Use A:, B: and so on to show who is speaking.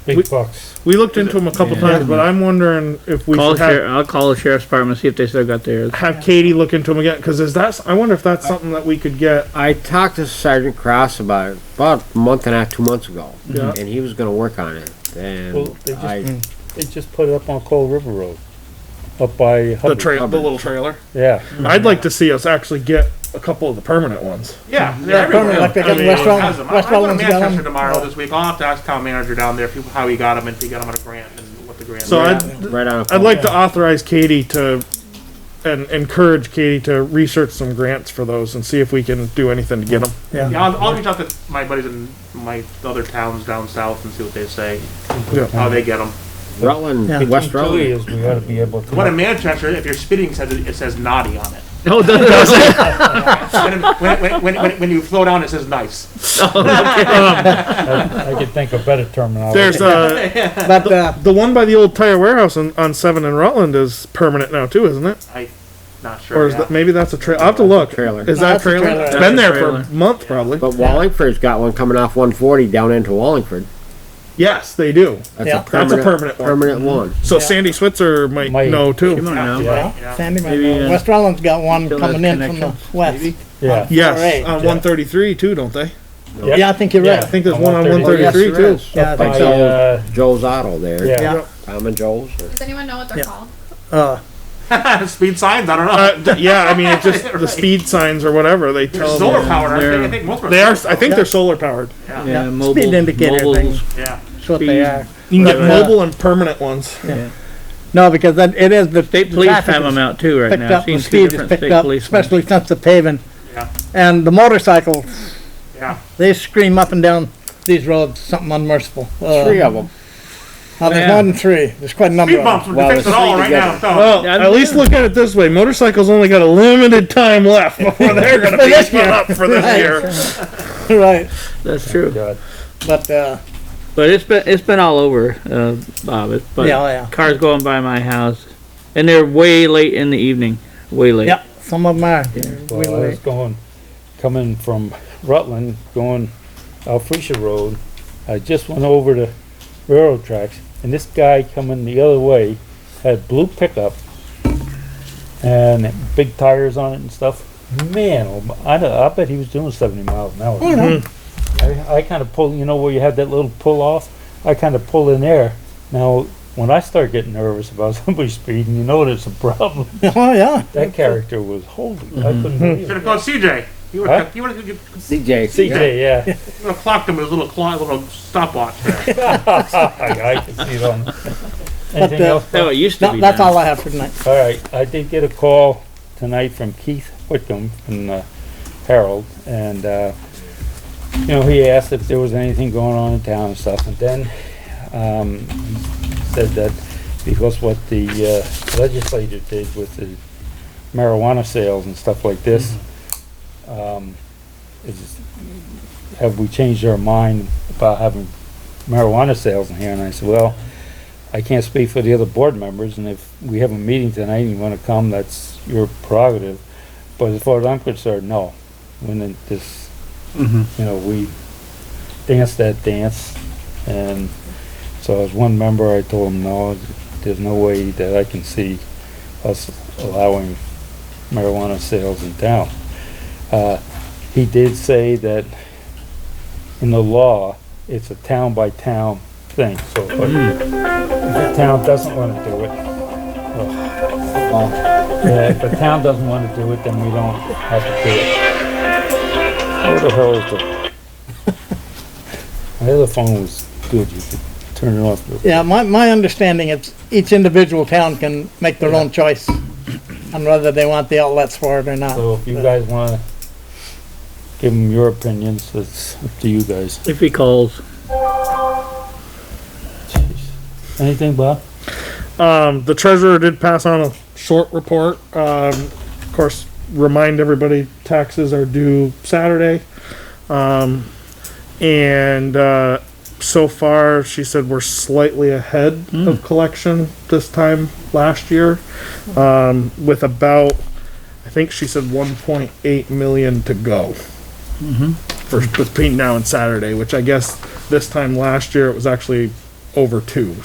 A: Big bucks.
B: We looked into them a couple
C: Yeah.
B: times, but I'm wondering if we
C: Call
B: should
C: the
B: have,
C: sheriff, I'll call the sheriff's department, see if they still got theirs.
B: have Katie look into them again, cause is that, I wonder if that's something that we could get.
D: I talked to Sergeant Cross about it about a month and a half, two months ago,
B: Yeah.
D: and he was going to work on it. And
A: Well, they just-
D: I,
A: They just put it up on Coal River Road, up by
E: The
A: Hubbard.
E: trail, the little trailer.
A: Yeah.
B: I'd like to see us actually get a couple of the permanent ones.
E: Yeah, they're everywhere.
F: Like they
E: I
F: got
E: mean,
F: West Rutland-
E: has them. I-
F: West
E: I go to
F: Rutland's got
B: um,
E: Manchester
F: them.
E: tomorrow this week. I'll have to ask town manager down there if he, how he got them, if he got them on a grant and what the grant.
B: So
E: was.
B: I'd,
D: right on.
B: I'd like to authorize Katie to, and encourage Katie to research some grants for those and see if we can do anything to get them.
E: Yeah, I'll, I'll reach out to my buddies in my other towns down south and see what they say, how they get them.
D: Rutland,
F: Yeah.
D: West
A: Two
D: Rutland.
A: years, we ought to be able to.
E: The one in Manchester, if you're spitting, says it, it says naughty on it.
B: Oh,
C: No, it doesn't.
E: When, when, when, when, when- when you flow down, it says nice.
A: I could think of better terminology.
B: There's a,
F: But, uh,
B: the one by the old tire warehouse on, on Seven and Rutland is permanent now too, isn't it?
E: I, not sure.
B: Or is
E: yeah.
B: that, maybe that's a trail, I'll have to look.
D: Trailer.
B: Is that a
F: That's a
B: trailer?
F: trailer.
B: It's been there
C: That's a
B: for a month probably.
D: But Wallingford's got one coming off 140 down into Wallingford.
B: Yes, they do.
D: That's
F: Yeah.
D: a
B: That's
D: permanent,
B: a permanent one.
D: permanent one.
B: So Sandy Switzer might,
A: Might.
B: know
C: Come
B: too.
C: on now.
A: Yeah,
E: Yeah.
F: Sandy might
C: Maybe,
F: know.
C: uh,
F: West Rutland's got one
C: still
F: coming
C: has
F: in from the
C: connections,
F: west.
C: maybe?
A: yeah.
B: Yes,
F: Alright.
B: on one thirty-three too, don't they?
F: Yeah, I think you're
B: Yeah, Oh, I
F: right.
B: think there's
A: On
B: one on one
A: 133.
B: thirty-three
D: Yes, there
B: too.
D: is.
F: Yeah, I
D: By
F: think
A: By, uh,
D: Joe's, Joe's Auto there.
A: yeah.
F: Yeah,
D: Tom and Joe's. or-
G: Does anyone know what they're
F: Yeah.
G: called?
F: uh,
E: Speed signs, I don't know.
B: Uh, th- yeah, I mean, it's just the speed signs or whatever, they
E: They're
B: tell them.
E: solar powered, aren't they? I think most of them
B: They are, I think they're solar powered.
C: Yeah, mobile.
F: speed indicator
C: mobiles.
F: things,
E: Yeah.
F: that's what they are.
B: You can get
F: Right.
B: mobile and permanent ones.
F: No, because that, it is the.
C: State
F: the
C: police
F: traffic
C: have
F: is
C: them out too right
F: Picked
C: now.
F: up,
C: I've seen
F: the
C: two
F: speed is
C: different
F: picked
C: state
F: up,
C: police.
F: especially since the paving.
E: Yeah.
F: And the motorcycles,
E: Yeah.
F: they scream up and down these roads, something unmerciful. Uh,
D: Three of them.
F: Now, there's
C: Yeah.
F: more than three, there's quite a number
E: Speed
F: of 'em.
E: bumps, we
D: Well,
E: can fix it
D: it's
E: all
D: three
E: right now. so-
B: Well,
C: Yeah, I'm-
B: at least look at it this way, motorcycles only got a limited time left before they're gonna be
F: this
B: spun
F: year.
B: up for this
F: Right.
B: year.
F: Right,
C: That's true.
A: God.
F: but, uh,
C: But it's been, it's been all over, uh, Bob. It's, but
F: yeah, yeah,
C: cars going by my house and they're way late in the evening, way late.
F: yeah, some of them are.
A: Well, I was going, coming from Rutland, going Alphresia Road. I just went over the railroad tracks, and this guy coming the other way had blue pickup and big tires on it and stuff. Man, oh, I, don't- I bet he was doing 70 miles an hour. I, I kind of pulled, you know, where you had that little pull off. I kind of pulled in there. Now, when I start getting nervous about somebody speeding, you know there's a problem.
F: Oh, yeah.
A: That character was holy. I couldn't believe it.
E: Should have called CJ. You would
A: Huh?
E: have, you would have
D: CJ.
A: CJ, yeah.
E: clocked him with his little clock, little stopwatch. there.
A: I, I can see it on.
F: But,
A: Anything
F: uh,
A: else?
C: That's how it used to
F: No,
C: be
F: that's
C: done.
F: all I have for tonight.
A: All right, I did get a call tonight from Keith Whitcomb from the Herald, and, uh, you know, he asked if there was anything going on in town and stuff, and then, um, he said that because what the uh, legislature did with the marijuana sales and stuff like this, um, is, have we changed our mind about having marijuana sales in here? And I said, well, I can't speak for the other board members, and if we have a meeting tonight and you wanna come, that's your prerogative. But as far as I'm concerned, no. When it- this, you know, we dance that dance, and so as one member, I told him, no, there's no way that I can see us allowing marijuana sales in town. Uh, he did say that in the law, it's a town-by-town thing, so if I the town doesn't want to do it. Well, yeah, if the town doesn't want to do it, then we don't have to do it. Where the hell is the? My other phone was good, you could turn it off. but-
F: Yeah, my, my understanding is each individual town can make their own choice on whether they want the outlets for it or not.
A: So if you guys want to give them your opinions, it's up to you guys.
C: If he calls,
A: Anything, Bob?
B: Um, the treasurer did pass on a short report. Um, of course, remind everybody taxes are due Saturday. Um, and uh, so far, she said we're slightly ahead of collection this time last year, um, with about, I think she said 1.8 million to go. For between now and Saturday, which I guess this time last year it was actually over two.